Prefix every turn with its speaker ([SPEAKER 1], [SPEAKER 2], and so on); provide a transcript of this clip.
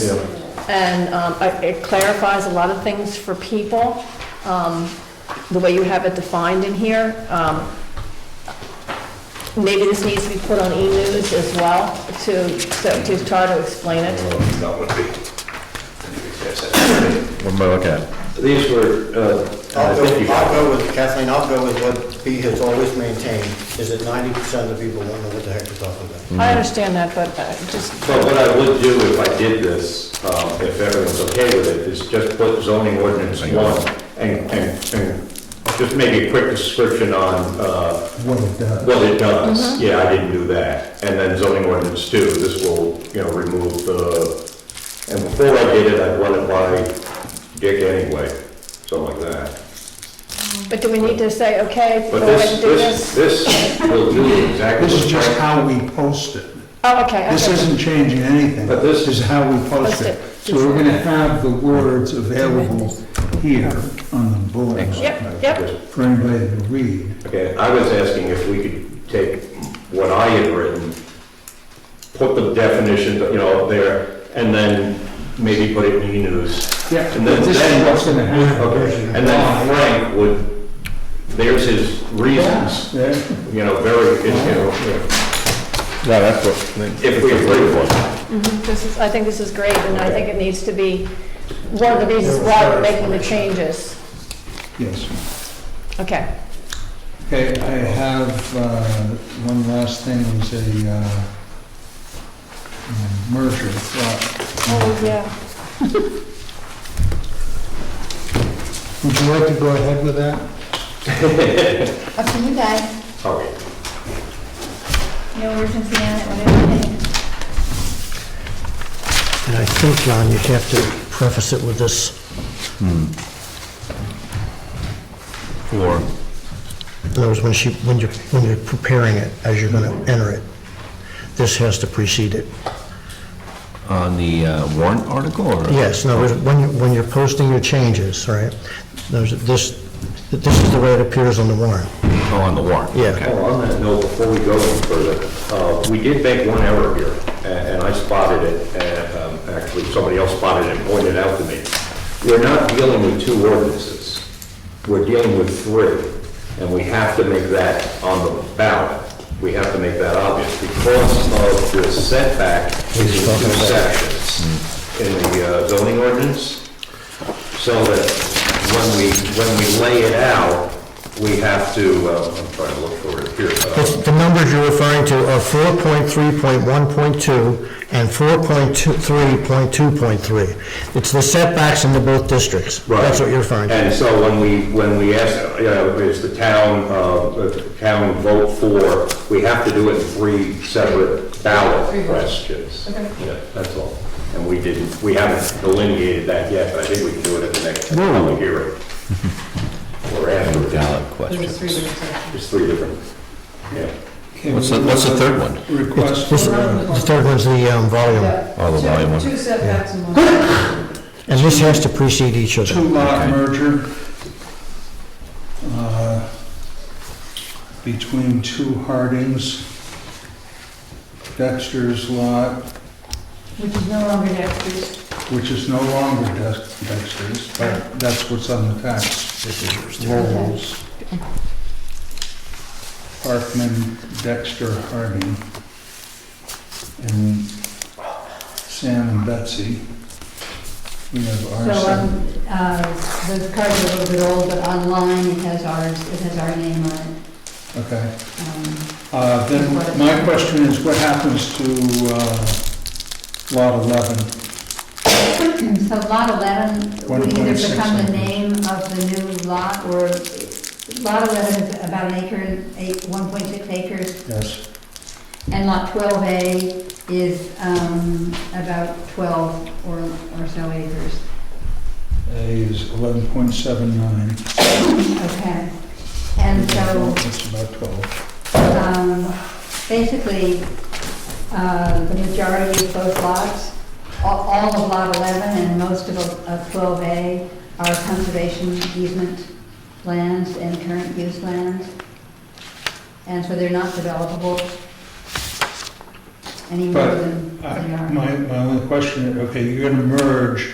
[SPEAKER 1] Yeah.
[SPEAKER 2] And um, I- it clarifies a lot of things for people, um, the way you have it defined in here. Um, Maybe this needs to be put on e-news as well to, so- to try to explain it.
[SPEAKER 3] That would be. yes,
[SPEAKER 4] What am I looking at?
[SPEAKER 3] I- These were, uh,
[SPEAKER 1] I'll go,
[SPEAKER 3] fifty
[SPEAKER 1] I'll
[SPEAKER 3] dollars.
[SPEAKER 1] go with, Kathleen, I'll go with what B has always maintained, is that ninety percent of the people won't know what the heck we're talking about.
[SPEAKER 2] I understand that, but uh, just,
[SPEAKER 3] But what I would do if I did this, um, if everyone's okay with it, is just put zoning ordinance one and, and, and just maybe a quick description on, uh,
[SPEAKER 5] what it does.
[SPEAKER 3] Well, it does,
[SPEAKER 2] Mm-hmm.
[SPEAKER 3] yeah, I didn't do that. And then zoning ordinance too, this will, you know, remove the, and before I did it, I'd run it by Dick anyway, something like that.
[SPEAKER 2] but do we need to say, okay, go
[SPEAKER 3] But
[SPEAKER 2] ahead and
[SPEAKER 3] this,
[SPEAKER 2] do
[SPEAKER 3] this,
[SPEAKER 2] this?
[SPEAKER 3] this will do exactly.
[SPEAKER 5] This is
[SPEAKER 3] what
[SPEAKER 5] just
[SPEAKER 3] Frank-
[SPEAKER 5] how we post it.
[SPEAKER 2] Oh, okay,
[SPEAKER 5] This
[SPEAKER 2] okay.
[SPEAKER 5] isn't changing anything.
[SPEAKER 3] But this-
[SPEAKER 5] is how we post
[SPEAKER 2] Post
[SPEAKER 5] it.
[SPEAKER 2] it.
[SPEAKER 5] So we're gonna have the words available here on the bulletin
[SPEAKER 2] Yep, yep,
[SPEAKER 5] for anybody to read.
[SPEAKER 3] Okay, I was asking if we could take what I had written, put the definition, you know, up there, and then maybe put it in E e-news.
[SPEAKER 5] Yeah,
[SPEAKER 3] And then-
[SPEAKER 5] but this is what's gonna happen.
[SPEAKER 3] Okay, and then Frank would, there's his reasons.
[SPEAKER 5] Yeah.
[SPEAKER 3] you know, very, you know,
[SPEAKER 4] No, that's what.
[SPEAKER 3] if we agree with one.
[SPEAKER 2] this is, I think this is great, and I think it needs to be one of the reasons why we're making the changes.
[SPEAKER 5] Yes.
[SPEAKER 2] Okay,
[SPEAKER 5] Okay, I have, uh, one last thing, is a, uh, um, merger.
[SPEAKER 2] oh,
[SPEAKER 5] thought.
[SPEAKER 2] yeah.
[SPEAKER 5] Would you like to go ahead with that?
[SPEAKER 6] Up to you guys,
[SPEAKER 3] Okay.
[SPEAKER 6] no urgency on it, whatever you think.
[SPEAKER 7] And I think, John, you'd have to preface it with this,
[SPEAKER 4] For,
[SPEAKER 7] in other words, when she, when you're, when you're preparing it, as you're gonna enter it, this has to precede it.
[SPEAKER 4] on the uh, warrant article or?
[SPEAKER 7] Yes, in other words, when, you- when you're posting your changes, right, there's, this, this is the way it appears on the warrant,
[SPEAKER 4] Oh, on the warrant?
[SPEAKER 7] Yeah.
[SPEAKER 4] Okay.
[SPEAKER 3] Oh, on that note, before we go any further, uh, we did make one error here, a- and I spotted it, and, um, actually, somebody else spotted it and pointed it out to me. We're not dealing with two ordinances, we're dealing with three, and we have to make that on the ballot. We have to make that obvious, because of the setback is in two sections. In the uh, zoning ordinance, so that when we, when we lay it out, we have to, uh, I'm trying to look for it here.
[SPEAKER 7] It's-
[SPEAKER 3] uh,
[SPEAKER 7] The numbers you're referring to are 4.3.1.2 and 4.3.2.3. It's the setbacks in the both districts. That's what you're referring to.
[SPEAKER 3] And so when we, when we ask, you know, is the town, uh, the town vote for, we have to do it in three separate ballot questions. Yeah, that's all. And we didn't, we haven't delineated that yet, but I think we can do it at the next public hearing. Or after.
[SPEAKER 4] Ballot question.
[SPEAKER 3] There's three different, yeah.
[SPEAKER 5] Okay,
[SPEAKER 4] What's the-
[SPEAKER 5] we
[SPEAKER 4] what's the
[SPEAKER 5] have
[SPEAKER 4] third one?
[SPEAKER 5] Request. uh,
[SPEAKER 7] This- The third one's the um, volume,
[SPEAKER 4] Oh, the volume one.
[SPEAKER 8] Two setbacks and one.
[SPEAKER 7] and this has to precede each other.
[SPEAKER 5] two-lot merger uh, between two Hardings, Dexter's lot,
[SPEAKER 8] Which is no longer Dexter's.
[SPEAKER 5] which is no longer Dex- Dexter's, but that's what's on the tax. Lowell's. Parkman, Dexter, Harding, and Sam and Betsy. We have
[SPEAKER 8] So,
[SPEAKER 5] our seven.
[SPEAKER 8] um, uh, the card's a little bit old, but online it has ours, it has our name on it.
[SPEAKER 5] okay.
[SPEAKER 8] Um,
[SPEAKER 5] Uh, Then my question is, what happens to uh, Lot 11?
[SPEAKER 6] Um, So lot 11 would either
[SPEAKER 5] 1.6
[SPEAKER 6] become the
[SPEAKER 5] acres.
[SPEAKER 6] name of the new lot, or lot 11 is about an acre, and eight- 1.6 acres,
[SPEAKER 5] Yes.
[SPEAKER 6] and lot 12A is um, about 12 or or so acres.
[SPEAKER 5] A is 11.79.
[SPEAKER 6] Okay. And so
[SPEAKER 5] It's about 12.
[SPEAKER 6] Um, Basically, uh, the majority of both lots, all all of Lot 11 and most of of 12A are conservation easement lands and current use lands, and so they're not developable.
[SPEAKER 8] any more
[SPEAKER 5] But
[SPEAKER 8] than they
[SPEAKER 5] I-
[SPEAKER 8] are.
[SPEAKER 5] My, my only question, okay, you're gonna merge